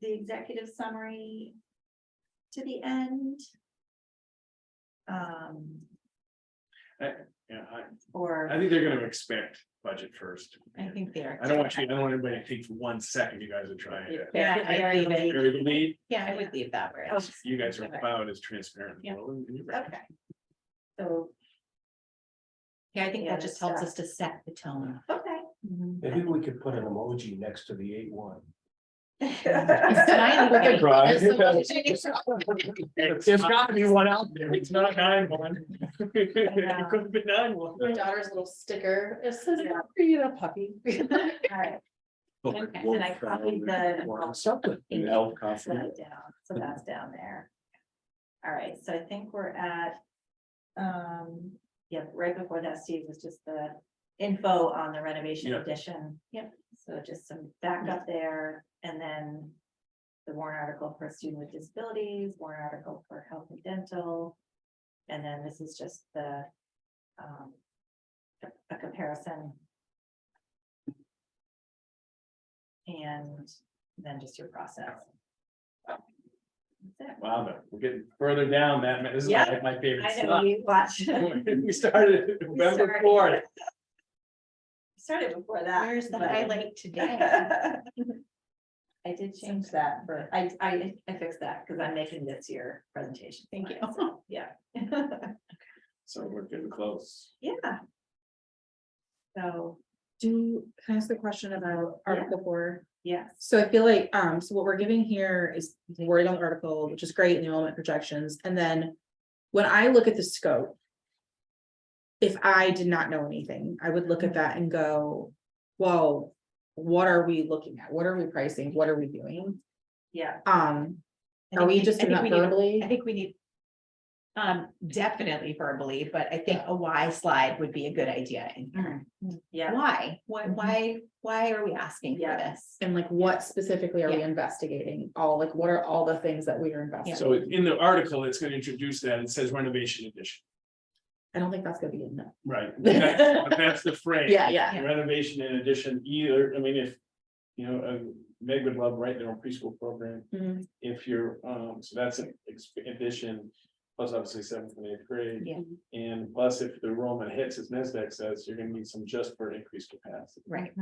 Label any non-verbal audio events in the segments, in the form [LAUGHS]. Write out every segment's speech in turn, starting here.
the executive summary to the end. Um, Yeah, I, I or, think they're gonna expect budget first. I think they are. I don't want you, I don't want anybody to think for one second you guys are trying to. Yeah, Yeah, I I would agree. leave- bury the lead. Yeah, I would leave that where. it is. You guys are about as transparent. as Yeah. well, and you're right. okay. So, Yeah, I think Yeah, that just that's helps that. us to set the [LAUGHS] tone. okay. [LAUGHS] Maybe we could put an emoji next to the eight one. Smiley face. Right. There's so much- [LAUGHS] There's gotta be one out there. It's not nine one. [LAUGHS] It could have been nine one. My daughter's little sticker, it says, Yeah. you a [LAUGHS] puppy. All right, and I copied the. Something. Thank you. elf That's that down, so that's down there. All right, so I think we're at, um, yeah, right before that, Steve, was just the info on the renovation Yeah. addition. Yep. So just some backup there, and then the warrant article for student with disabilities, warrant article for health and dental. And then this is just the, um, a comparison. And then just your process. That's it. Wow, but we're getting further down that, ma- this is my my favorite I know stuff. you watch, We started We November started- fourth. [LAUGHS] started before that. Where's the but- highlight today? [LAUGHS] I did change that, but I, I, I fixed that because I'm making this your presentation. Thank you. So, Yeah. [LAUGHS] So we're getting close. Yeah. So, [LAUGHS] Do, can I ask the question about Yeah. article four? yes, So I feel like, um, so what we're giving here is the wording on the article, which is great in the element projections, and then. When I look at the scope. If I did not know anything, I would look at that and go, well, what are we looking at? What are we pricing? What are we doing? yeah. Um, I think are we just I think doing that we need- verbally? I think we need. Um, definitely verbally, but I think a why slide would be a good idea. in Mm-hmm. here. Yeah. Why, why, Mhm. why, why are we asking for Yeah. this? And like, what specifically are we investigating? All, like, what are all the things that we are investigating? So in the article, it's gonna introduce that, it says renovation edition, I don't think that's gonna be enough. right? That's that's the phrase. Yeah, yeah. Renovation in addition either, I mean, if, you know, uh, Meg would love, right, their own preschool program. Mhm. If you're, um, so that's an ex- addition, plus obviously seventh and eighth grade. Yeah. And plus, if the enrollment hits, as NESDAQ says, you're gonna need some just for increased capacity. Right,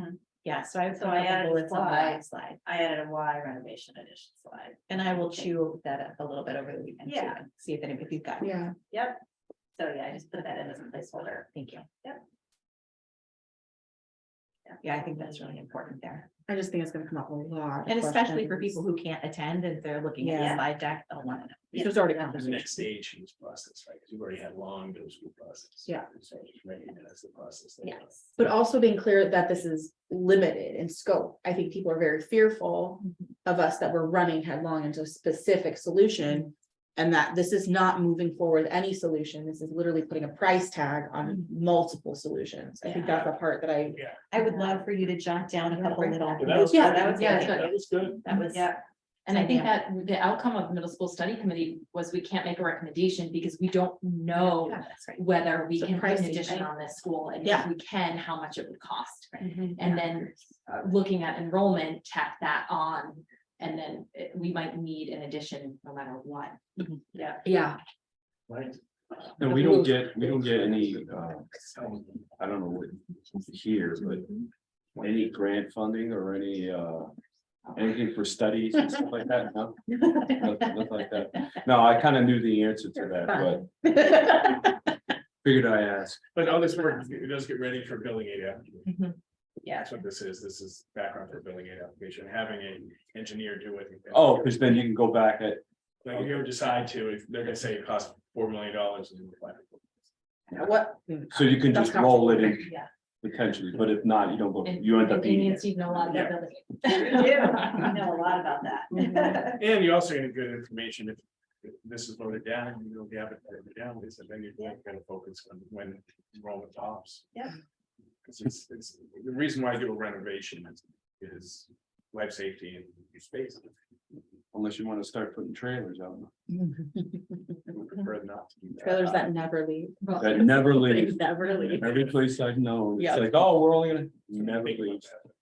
yeah, so I. So I added bullets on the why. why Slide, I added a Y renovation addition slide. and I will chew that up a little bit over the weekend. too, Yeah. and See if any, if you've got. Yeah. Yep. So, yeah, I just put that in as a placeholder. Thank you. Yep. Yeah, I think that's really important there, I just think it's gonna come up a lot. of and especially for questions. people who can't attend and they're looking at the Yeah. slide deck, they'll want to know. There's already The conversation. next stage in this process, right, because you've already had long middle school process. Yeah. So, right, and that's the process. that- Yes. But also being clear that this is limited in scope. I think people are very fearful of us that we're running headlong into a specific solution. And that this is not moving forward any solution. This is literally putting a price tag on multiple solutions. I think that's the part that I, I would love for you to jot down a couple little. Yeah, that was Yeah, good. that was- yeah, That was good. That was. Yeah, And I think that the outcome of the middle school study committee was we can't make a recommendation because we don't know Yeah, that's right. whether we The can put an pricing, addition right? on this school, and if Yeah. we can, how much it would cost. Mm-hmm. Yeah. And then uh, looking at enrollment, tack that on, and then uh, we might need an addition no matter [LAUGHS] what. yeah. yeah. Right. And we don't get, we don't get any, uh, I don't know what here, but any grant funding or any, uh, anything for studies and stuff like that, no? Nothing nothing like that. No, I kind of knew the answer to that, but [LAUGHS] figured I asked. But all this work, it does get ready for billing aid application. Mm-hmm. Yeah. That's what this is. This is background for billing aid application, having an engineer do it. Oh, because then you can go back at, Like if you ever decide to, if they're gonna say it costs four million dollars. What? so you can just That's roll it in Yeah. potentially, but if not, you don't go, And- you end up and you being. need to know a lot about building. Yeah, I know a lot about that. And you're also gonna get good information if if this is voted down, you know, the applicant voted down, is then you're not gonna focus on when enrollment tops. Yeah. It's, it's, it's, the reason why I do a renovation is, is life safety and your space. Unless you want to start putting trailers out. I Mm-hmm. would prefer not to do that. Trailers that never leave. That never They leaves. never leave. Every place I've known, Yeah. it's like, oh, we're only gonna, never Think about leaves. that.